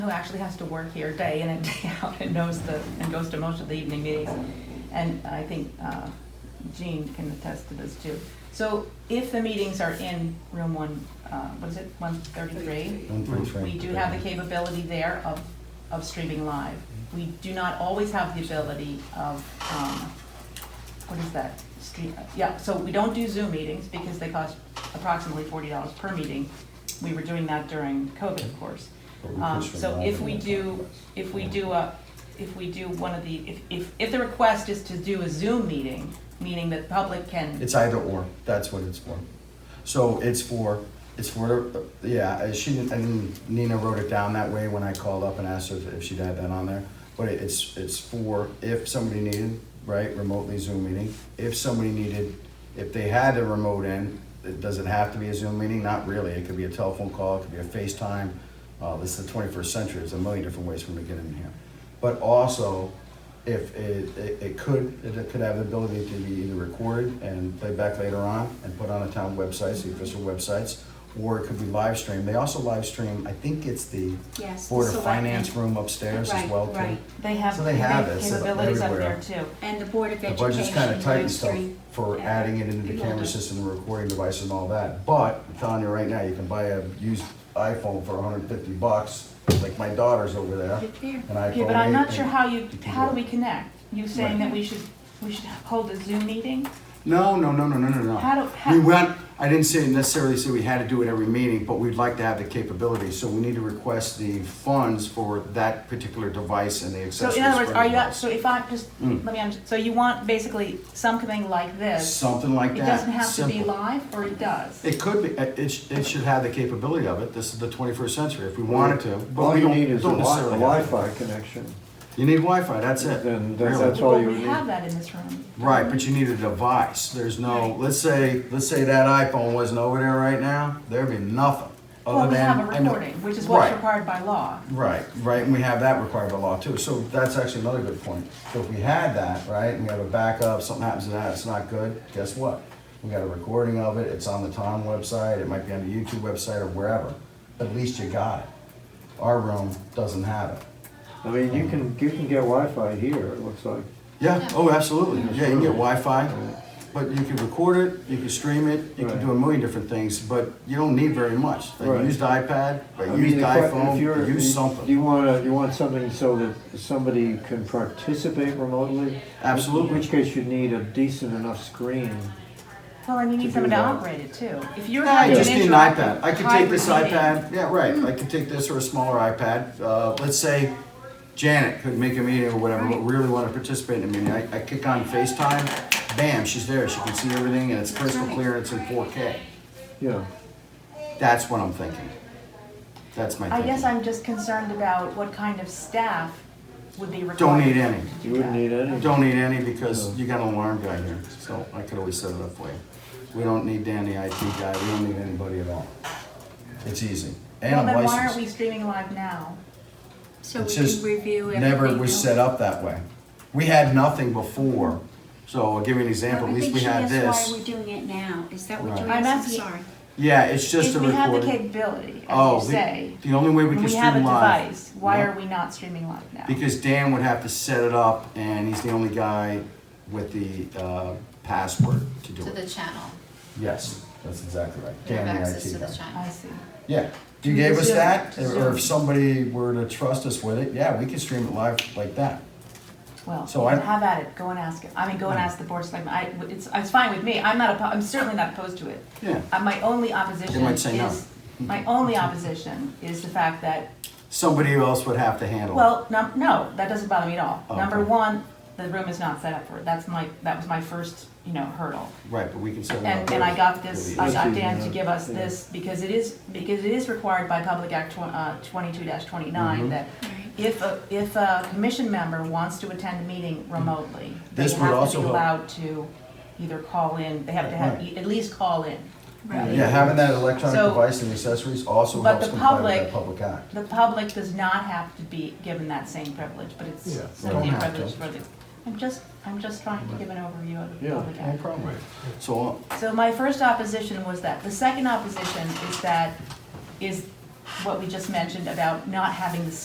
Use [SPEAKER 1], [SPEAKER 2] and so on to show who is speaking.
[SPEAKER 1] who actually has to work here day in and day out and knows the, and goes to most of the evening meetings. And I think uh, Jean can attest to this too. So if the meetings are in room one, uh, what is it, one thirty-three?
[SPEAKER 2] One for Frank.
[SPEAKER 1] We do have the capability there of, of streaming live. We do not always have the ability of, um, what is that? Stream, yeah, so we don't do Zoom meetings because they cost approximately forty dollars per meeting. We were doing that during COVID, of course.
[SPEAKER 2] But we could
[SPEAKER 1] Um,
[SPEAKER 2] stream
[SPEAKER 1] so
[SPEAKER 2] live
[SPEAKER 1] if
[SPEAKER 2] on
[SPEAKER 1] we
[SPEAKER 2] that
[SPEAKER 1] do, if we do a, if we do one of the, if, if, if the request is to do a Zoom meeting, meaning that the public can,
[SPEAKER 2] It's either or, that's what it's for. So it's for, it's for, yeah, I- she, and Nina wrote it down that way when I called up and asked her if she'd had that on there. But it- it's, it's for if somebody needed, right, remotely Zoom meeting, if somebody needed, if they had a remote in, it- does it have to be a Zoom meeting? Not really, it could be a telephone call, it could be a FaceTime. Uh, this is the twenty-first century, there's a million different ways for them to get in here. But also, if it, it, it could, it could have the ability to be either recorded and played back later on and put on the town websites, the official websites, or it could be live streamed. They also live stream, I think it's the
[SPEAKER 3] Yes. the
[SPEAKER 2] Board of
[SPEAKER 3] select-
[SPEAKER 2] Finance room upstairs as
[SPEAKER 3] Right,
[SPEAKER 2] well too.
[SPEAKER 3] right.
[SPEAKER 1] they have,
[SPEAKER 2] So
[SPEAKER 1] they
[SPEAKER 2] they have
[SPEAKER 1] have
[SPEAKER 2] it, so
[SPEAKER 1] capabilities up there
[SPEAKER 2] everywhere.
[SPEAKER 1] too.
[SPEAKER 3] And the Board of
[SPEAKER 2] The
[SPEAKER 3] Education.
[SPEAKER 2] budget's kind of tight and stuff
[SPEAKER 3] live stream.
[SPEAKER 2] for
[SPEAKER 3] Yeah.
[SPEAKER 2] adding it into the
[SPEAKER 3] Yeah.
[SPEAKER 2] camera system, the recording device and all that. But I'm telling you right now, you can buy a used iPhone for hundred and fifty bucks, like my daughter's over there.
[SPEAKER 3] Right there.
[SPEAKER 2] An iPhone
[SPEAKER 1] Okay, but I'm not
[SPEAKER 2] 8,
[SPEAKER 1] sure
[SPEAKER 2] and-
[SPEAKER 1] how you,
[SPEAKER 2] can
[SPEAKER 1] how do
[SPEAKER 2] do
[SPEAKER 1] we
[SPEAKER 2] it.
[SPEAKER 1] connect? You saying
[SPEAKER 2] Right.
[SPEAKER 1] that we should, we should hold a Zoom meeting?
[SPEAKER 2] No, no, no, no, no, no, no.
[SPEAKER 1] How do- how-
[SPEAKER 2] We went, I didn't say necessarily say we had to do it every meeting, but we'd like to have the capability, so we need to request the funds for that particular device and the
[SPEAKER 1] So
[SPEAKER 2] accessories.
[SPEAKER 1] in other words,
[SPEAKER 2] for
[SPEAKER 1] are you,
[SPEAKER 2] the
[SPEAKER 1] so if I, just,
[SPEAKER 2] Mm.
[SPEAKER 1] let me, under- so you want basically something like
[SPEAKER 2] device.
[SPEAKER 1] this?
[SPEAKER 2] Something like
[SPEAKER 1] It
[SPEAKER 2] that.
[SPEAKER 1] doesn't have to be
[SPEAKER 2] simple.
[SPEAKER 1] live, or it does?
[SPEAKER 2] It could be, it, it sh- it should have the capability of it, this is the twenty-first century, if we wanted to, but
[SPEAKER 4] All
[SPEAKER 2] we
[SPEAKER 4] you
[SPEAKER 2] don't,
[SPEAKER 4] need is a
[SPEAKER 2] don't
[SPEAKER 4] Wi- a
[SPEAKER 2] necessarily. have to.
[SPEAKER 4] Wi-Fi connection.
[SPEAKER 2] You need Wi-Fi, that's it,
[SPEAKER 4] Then that's-
[SPEAKER 2] really.
[SPEAKER 4] that's all you
[SPEAKER 1] Well, we
[SPEAKER 4] need.
[SPEAKER 1] have that in this room.
[SPEAKER 2] Right, but you need a device. There's no,
[SPEAKER 1] Right.
[SPEAKER 2] let's say, let's say that iPhone wasn't over there right now, there'd be nothing.
[SPEAKER 1] Well,
[SPEAKER 2] other
[SPEAKER 1] we
[SPEAKER 2] than
[SPEAKER 1] have a
[SPEAKER 2] I know-
[SPEAKER 1] recording, which is what's
[SPEAKER 2] Right,
[SPEAKER 1] required by law.
[SPEAKER 2] Right, right, and we have that required by law too, so that's actually another good point. So if we had that, right, and we have a backup, something happens to that, it's not good, guess what? We got a recording of it, it's on the town website, it might be on the YouTube website or wherever, but at least you got it. Our room doesn't have it.
[SPEAKER 4] I mean, you can, you can get Wi-Fi here, it looks like.
[SPEAKER 2] Yeah, oh, absolutely, yeah, you can get Wi-Fi, but you can record it, you can stream it, you can do a million different things, but you don't need very much. A
[SPEAKER 4] Right.
[SPEAKER 2] used iPad,
[SPEAKER 4] I
[SPEAKER 2] a
[SPEAKER 4] mean,
[SPEAKER 2] used
[SPEAKER 4] the que- if
[SPEAKER 2] iPhone,
[SPEAKER 4] you're-
[SPEAKER 2] a used
[SPEAKER 4] You
[SPEAKER 2] something.
[SPEAKER 4] want to, you want something so that somebody can participate remotely?
[SPEAKER 2] Absolutely.
[SPEAKER 4] In which case you need a decent enough screen.
[SPEAKER 1] Well, and you
[SPEAKER 4] To
[SPEAKER 1] need
[SPEAKER 4] do
[SPEAKER 1] someone to
[SPEAKER 4] that.
[SPEAKER 1] operate it too. If you're
[SPEAKER 2] Yeah,
[SPEAKER 1] having
[SPEAKER 2] you
[SPEAKER 1] an
[SPEAKER 2] just need an
[SPEAKER 1] interactive
[SPEAKER 2] iPad. I could take this
[SPEAKER 1] hybrid meeting-
[SPEAKER 2] iPad, yeah, right,
[SPEAKER 1] Hmm.
[SPEAKER 2] I could take this or a smaller iPad. Uh, Let's say Janet could make a meeting or whatever, but really want to participate in a meeting. I I kick on FaceTime, bam, she's there, she can see everything, and it's crystal
[SPEAKER 1] right.
[SPEAKER 2] clear, and it's in 4K.
[SPEAKER 4] Yeah.
[SPEAKER 2] That's what I'm thinking. That's my
[SPEAKER 1] I
[SPEAKER 2] thinking.
[SPEAKER 1] guess I'm just concerned about what kind of staff would be required.
[SPEAKER 2] Don't need any.
[SPEAKER 1] to do
[SPEAKER 4] You wouldn't
[SPEAKER 1] that.
[SPEAKER 4] need any.
[SPEAKER 2] Don't need any because you got an alarm guy here, so I could always set it up for you. We don't need Danny, IT guy, we don't need anybody at all. It's easy. And
[SPEAKER 1] Well,
[SPEAKER 2] I'm
[SPEAKER 1] then why aren't we
[SPEAKER 2] licensed.
[SPEAKER 1] streaming live now?
[SPEAKER 3] So we
[SPEAKER 2] It's
[SPEAKER 3] can
[SPEAKER 2] just
[SPEAKER 3] review everything.
[SPEAKER 2] Never was
[SPEAKER 3] else.
[SPEAKER 2] set up that way. We had nothing before, so I'll give you an example,
[SPEAKER 3] Well,
[SPEAKER 2] at
[SPEAKER 3] I
[SPEAKER 2] least
[SPEAKER 3] think
[SPEAKER 2] we
[SPEAKER 3] she
[SPEAKER 2] had
[SPEAKER 3] asked Why
[SPEAKER 2] this.
[SPEAKER 3] we're doing it now, is that
[SPEAKER 2] Right.
[SPEAKER 3] what you're
[SPEAKER 1] I'm
[SPEAKER 3] asking?
[SPEAKER 1] asking-
[SPEAKER 3] Sorry.
[SPEAKER 2] Yeah, it's just a
[SPEAKER 1] If we have the
[SPEAKER 2] recording.
[SPEAKER 1] capability,
[SPEAKER 2] Oh,
[SPEAKER 1] as you
[SPEAKER 2] the-
[SPEAKER 1] say,
[SPEAKER 2] The only way we
[SPEAKER 1] and
[SPEAKER 2] can
[SPEAKER 1] we have a
[SPEAKER 2] stream live.
[SPEAKER 1] device, why
[SPEAKER 2] Yeah.
[SPEAKER 1] are we not streaming live now?
[SPEAKER 2] Because Dan would have to set it up and he's the only guy with the uh, password to do
[SPEAKER 5] to the
[SPEAKER 2] it.
[SPEAKER 5] channel.
[SPEAKER 2] Yes, that's exactly right.
[SPEAKER 5] You have
[SPEAKER 2] Dan, the
[SPEAKER 5] access
[SPEAKER 2] IT
[SPEAKER 5] to the
[SPEAKER 2] guy.
[SPEAKER 1] I
[SPEAKER 5] channel.
[SPEAKER 1] see.
[SPEAKER 2] Yeah, you gave us that, or if somebody were to trust us with it, yeah, we could stream it live like that.
[SPEAKER 1] Well,
[SPEAKER 2] So I-
[SPEAKER 1] have at it, go and ask it, I mean, go and ask the board, of selectmen. I, it's, it's fine with me, I'm not, oppo- I'm certainly not opposed to it.
[SPEAKER 2] Yeah,
[SPEAKER 1] Uh, My only opposition
[SPEAKER 2] might say no.
[SPEAKER 1] is, my only opposition is the fact that,
[SPEAKER 2] somebody else would have to handle it.
[SPEAKER 1] well, num- no, that doesn't bother me at all.
[SPEAKER 2] Oh,
[SPEAKER 1] Number
[SPEAKER 2] okay.
[SPEAKER 1] one, the room is not set up for it, that's my, that was my first, you know, hurdle.
[SPEAKER 2] Right, but we can set it up.
[SPEAKER 1] And, and I got this, I got Dan to
[SPEAKER 4] Yeah.
[SPEAKER 1] give us this, because it is, because it is required by Public Act tw- uh, twenty-two twenty-nine,
[SPEAKER 2] Mhm.
[SPEAKER 1] that
[SPEAKER 3] Right.
[SPEAKER 1] if a, if a commission member wants to attend a meeting remotely, they
[SPEAKER 2] Mm. This would
[SPEAKER 1] have to
[SPEAKER 2] also
[SPEAKER 1] be
[SPEAKER 2] help.
[SPEAKER 1] allowed to either call in, they have to have, e,
[SPEAKER 2] Right.
[SPEAKER 1] at least call in.
[SPEAKER 3] Right.
[SPEAKER 2] Yeah, having that electronic
[SPEAKER 1] So-
[SPEAKER 2] device and accessories also
[SPEAKER 1] But
[SPEAKER 2] helps
[SPEAKER 1] the
[SPEAKER 2] comply with that
[SPEAKER 1] public-
[SPEAKER 2] public act.
[SPEAKER 1] The public does not have to be given that same privilege, but it's
[SPEAKER 4] Yeah.
[SPEAKER 1] certainly
[SPEAKER 2] Don't
[SPEAKER 1] a
[SPEAKER 2] have to.
[SPEAKER 1] privilege for the, I'm just, I'm just trying to give an overview of the
[SPEAKER 4] Yeah,
[SPEAKER 1] public
[SPEAKER 2] No
[SPEAKER 1] act.
[SPEAKER 2] problem. So,
[SPEAKER 1] So my first opposition was that. The second opposition is that, is what we just mentioned about not having the